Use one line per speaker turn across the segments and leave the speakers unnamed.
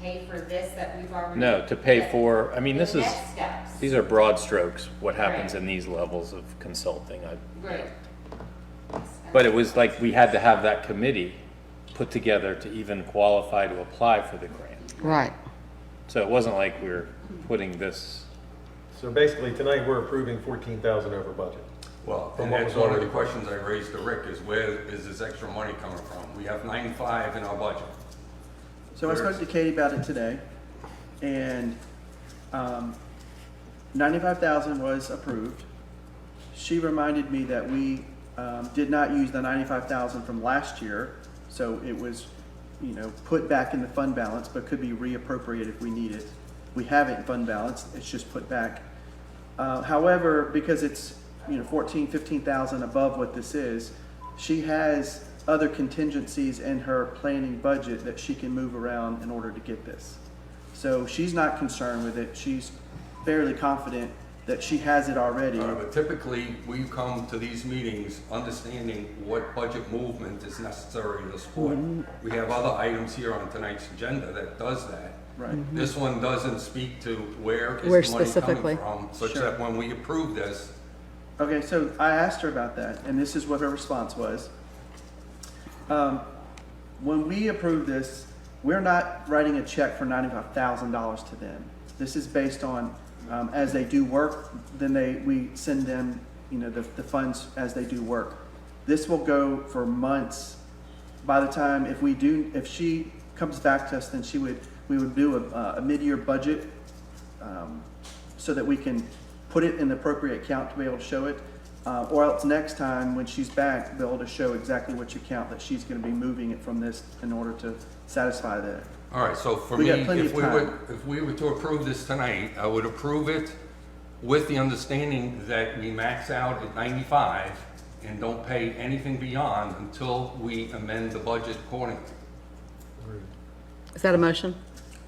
pay for this that we've already?
No, to pay for, I mean, this
The
is,
next steps.
these are broad strokes, what happens
Right.
in these levels of consulting. I-
Right.
But it was like, we had to have that committee put together to even qualify to apply for the grant.
Right.
So it wasn't like we were putting this,
So basically, tonight, we're approving 14,000 over budget.
Well,
From
and
what
that's
was
one of the
already-
questions I raised to Rick is where is this extra money coming from? We have ninety-five in our budget.
So I spoke to Katie about it today, and um, ninety-five thousand was approved. She reminded me that we um, did not use the ninety-five thousand from last year, so it was, you know, put back in the fund balance, but could be reappropriated if we need it. We have it in fund balance; it's just put back. Uh, however, because it's you know fourteen, fifteen thousand above what this is, she has other contingencies in her planning budget that she can move around in order to get this. So she's not concerned with it. She's fairly confident that she has it already.
Uh, But typically, we come to these meetings understanding what budget movement is necessary to support. We have other items here on tonight's agenda that does that.
Right.
This one doesn't speak to where
Where
is the money
specifically?
coming from, such
Sure.
that when we approve this,
Okay, so I asked her about that, and this is what her response was. Um, when we approve this, we're not writing a check for ninety-five thousand dollars to them. This is based on, um, as they do work, then they, we send them, you know, the, the funds as they do work. This will go for months. By the time, if we do, if she comes back to us, then she would, we would do a, a mid-year budget um, so that we can put it in the appropriate account to be able to show it. Uh, or else next time when she's back, be able to show exactly which account that she's gonna be moving it from this in order to satisfy that.
All right, so for
We
me,
got plenty
if
of
we
time.
were, if we were to approve this tonight, I would approve it with the understanding that we max out at ninety-five and don't pay anything beyond until we amend the budget accordingly.
Is that a motion?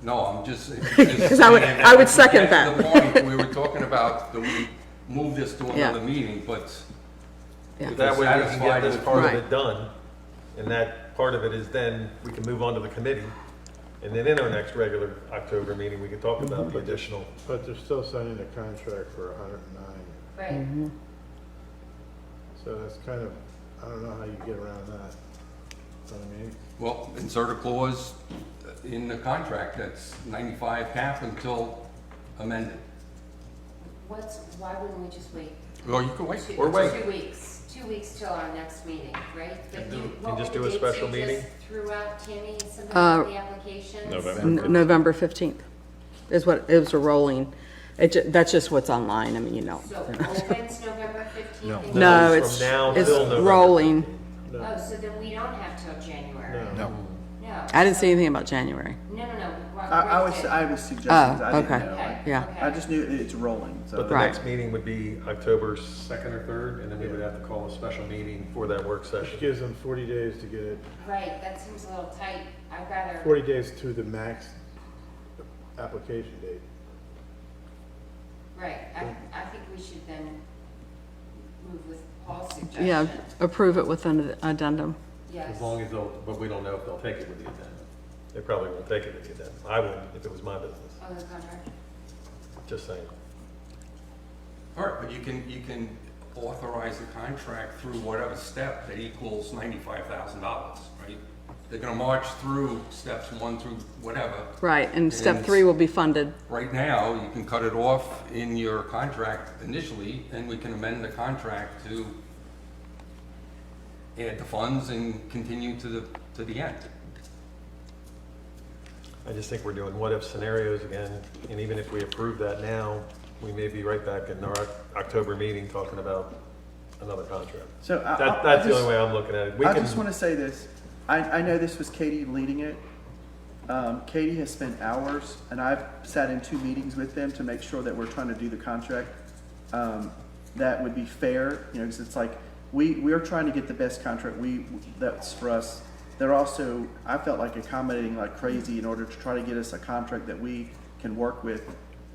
No, I'm just.
Because I would- I would second
At the point, we were talking about, do we move this to
Yeah.
another meeting, but
Yeah.
if
That
it's
way, we can get
satisfied
this
with
part of
Right.
it done, and that part of it is then, we can move on to the committee, and then in our next regular October meeting, we can talk about the additional.
But they're still signing a contract for hundred and nine,
Right.
Mm-hmm.
so that's kind of, I don't know how you get around that. Know what I mean,
Well, insert a clause in the contract that's ninety-five cap until amended.
What's, why wouldn't we just wait?
Well, you can wait.
Two-
Or wait.
Two weeks, two weeks till our next meeting, right? But
And do-
you-
and
what
just
were
do a
the dates
special
you
meeting?
just Threw out Tammy, some of
Uh,
the applications?
November.
N- November 15th is what, it was a rolling, it, ju- that's just what's online, I mean, you know.
So opens November fifteenth?
No,
it's
it's,
from now
it's
till November.
rolling.
Oh, so then we don't have till January?
No.
No.
I didn't see anything about January.
No, no, no.
I,
Rob-
I
Rick
was,
did.
I was suggesting, I
Oh, okay.
didn't know.
Okay,
Yeah.
okay.
I just knew it- it's rolling,
But
so.
the
Right.
next meeting would be October 2nd or 3rd, and then we would have to call a special meeting for that work
Which
session.
gives them forty days to get it,
Right, that seems a little tight. I'd rather,
forty days to the max application date.
right, I, I think we should then move with Paul's suggestion.
Yeah, approve it with an addendum.
Yes.
As long as they'll, but we don't know if they'll take it with the agenda.
They probably won't take it if you did. I would, if it was my business,
Oh, the contract.
just saying.
All right, but you can, you can authorize the contract through whatever step that equals ninety-five thousand dollars, right? They're gonna march through steps one through whatever.
Right, and step
And-
three will be funded.
Right now, you can cut it off in your contract initially, and we can amend the contract to add the funds and continue to the, to the end.
I just think we're doing what-if scenarios again, and even if we approve that now, we may be right back in our Oc- October meeting talking about another contract.
So I- I-
That,
I
that's the
just-
only way I'm looking at it. We
I
can-
just want to say this. I, I know this was Katie leading it. Um, Katie has spent hours, and I've sat in two meetings with them to make sure that we're trying to do the contract. Um, that would be fair, you know, because it's like we we're trying to get the best contract. We that's for us. They're also I felt like accommodating like crazy in order to try to get us a contract that we can work with.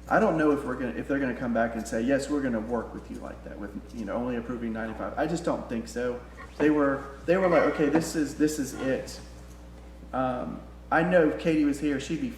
I don't know if we're gonna if they're gonna come back and say yes, we're gonna work with you like that with you know only approving ninety five. I just don't think so. They were they were like okay, this is this is it. Um, I know if Katie was here, she'd be